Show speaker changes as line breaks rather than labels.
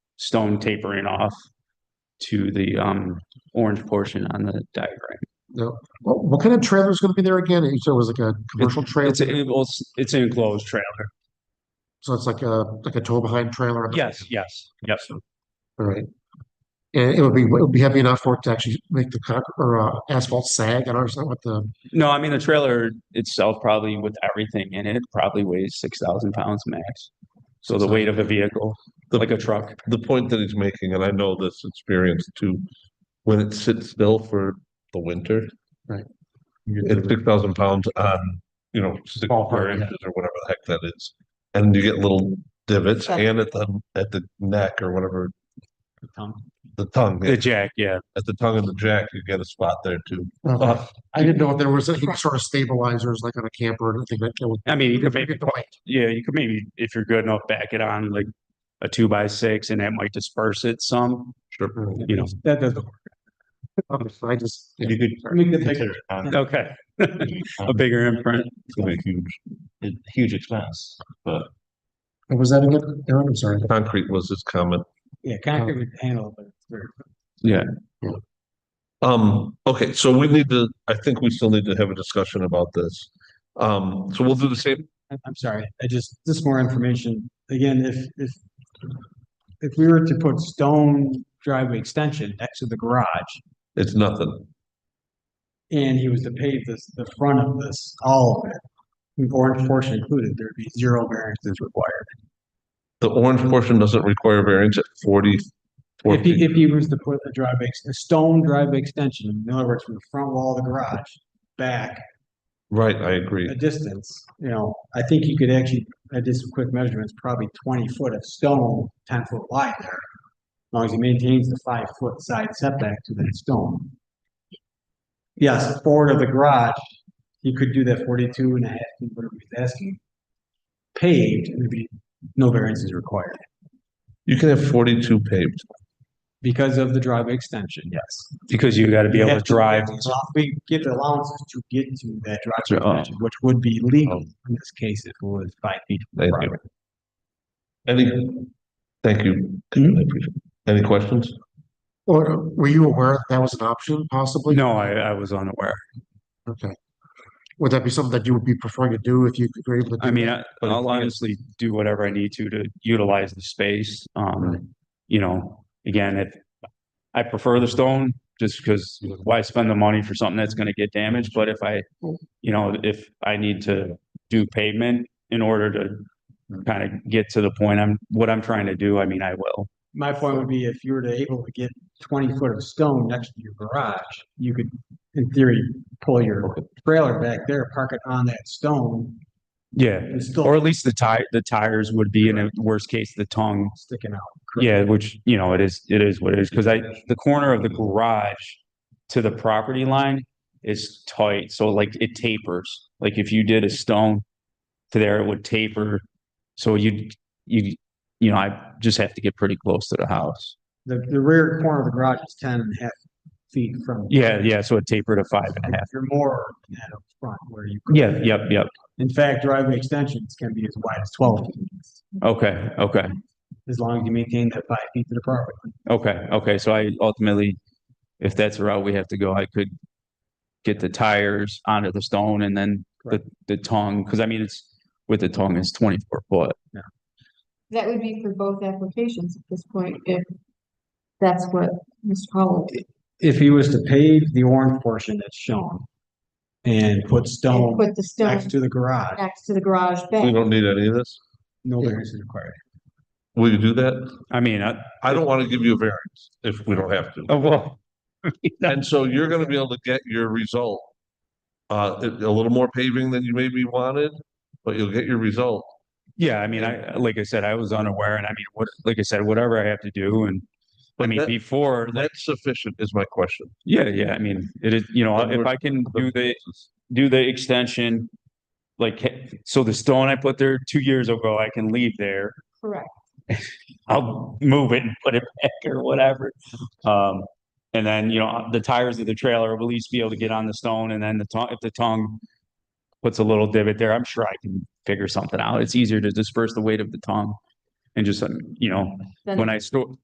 stone tapering off to the um orange portion on the diagram.
What, what kind of trailer is going to be there again? You said it was like a commercial trailer,
It's a, it's- it's an enclosed trailer.
so it's like a, like a tow behind trailer. on the-
Yes, yes, yes.
All right. And it would be, it would be heavy enough for it to actually make the concrete or uh, asphalt sag. I don't understand what the,
No, I mean, the trailer itself probably with everything in it probably weighs six thousand pounds max. So the weight of a vehicle, like a truck.
the point that he's making, and I know this experience too, when it sits still for the winter.
Right.
It's six thousand pounds on, you know, six square
Ballpark, yeah.
inches or whatever the heck that is. And you get little divots
Okay.
and at the, at the neck or whatever,
The
the tongue, yeah,
jack, yeah.
at the tongue of the jack, you get a spot there too.
okay.
Uh,
I didn't know if there was any sort of stabilizers like on a camper or anything that would.
I mean, you could maybe,
Forget the weight.
yeah, you could maybe, if you're good enough, back it on like a two by six and that might disperse it some,
Sure.
you know.
That doesn't work.
Okay, I just, yeah.
You could
Make the big-
consider it on-
Okay. A bigger imprint.
it's gonna be huge.
a huge expense, but
What was that again? Aaron, I'm sorry.
Concrete was his comment.
Yeah, concrete would handle, it, but it's very.
Um, okay, so we need to, I think we still need to have a discussion about this. Um, so we'll do the same,
I- I'm sorry, I just, just more information. Again, if, if, if we were to put stone driveway extension next to the garage
it's nothing.
and he was to pave this, the front of this, all of it, with orange portion included, there'd be zero variances required.
The orange portion doesn't require variance at forty.
If
40.
he, if he was to put a driveway, ex- a stone driveway extension, in other words, from the front wall of the garage back
Right, I agree.
a distance, you know, I think you could actually, I did some quick measurements, probably twenty foot of stone, ten foot wide there. As long as he maintains the five foot side setback to that stone. Yes, forward of the garage, he could do that 42 and a half feet, whatever he's asking. Paved, and there'd be no variances required
You can have forty-two paved.
because of the driveway extension, yes.
Because you gotta be able
You
to
have
drive.
So We give the allowances to get to that
Sure,
driveway
oh.
extension, which would be legal in this case if it was five feet from the
Thank
property.
you. Any, thank you. I appreciate it. Any questions?
Or were you aware that was an option possibly?
No, I, I was unaware.
Okay. Would that be something that you would be preferring to do if you were able to?
I
do
mean,
that?
I- I'll honestly do whatever I need to to utilize the space. Um, you know, again, if I prefer the stone just because why spend the money for something that's gonna get damaged? But if I, you know, if I need to do pavement in order to kind of get to the point I'm, what I'm trying to do, I mean, I will.
My point would be if you were to able to get twenty foot of stone next to your garage, you could, in theory, pull your trailer back there, park it on that stone
Yeah.
and
Or
still
at least the tire, the tires would be in a worst case, the tongue
sticking out.
Yeah, which, you know, it is, it is what it is, because I, the corner of the garage to the property line is tight, so like it tapers. Like if you did a stone to there, it would taper. So you, you, you know, I just have to get pretty close to the house.
The, the rear corner of the garage is ten and a half feet from.
Yeah, yeah, so it tapered to five and a half.
You're more than that up front where you. could-
Yeah, yep, yep.
In fact, driveway extensions can be as wide as twelve feet,
Okay, okay,
as long as you maintain that five feet to the property. line.
okay, okay. So I ultimately, if that's the route we have to go, I could get the tires onto the stone and then the, the tongue, because I mean, it's, with the tongue, it's twenty-four foot.
That would be for both applications at this point, if that's what Mr. Hollow did.
If he was to pave the orange portion that's shown and put
And
stone
put the stone
next to the garage,
next to the garage
We
back.
don't need any of this.
no variance is required.
Will you do that?
I mean, I,
I don't want to give you a variance if we don't have to.
oh, well.
And so you're gonna be able to get your result. Uh, a a little more paving than you maybe wanted, but you'll get your result.
Yeah, I mean, I, like I said, I was unaware and I mean, what, like I said, whatever I have to do and, I
But
mean,
that-
before, like,
That's sufficient is my question.
yeah, yeah, I mean, it is, you know,
Then
if
we're-
I can do the, do the extension. Like, so the stone I put there two years ago, I can leave there.
Correct.
I'll move it and put it back or whatever. Um, and then, you know, the tires of the trailer will at least be able to get on the stone and then the tongue, if the tongue puts a little divot there, I'm sure I can figure something out. It's easier to disperse the weight of the tongue. And just, um, you know,
Then
when I store,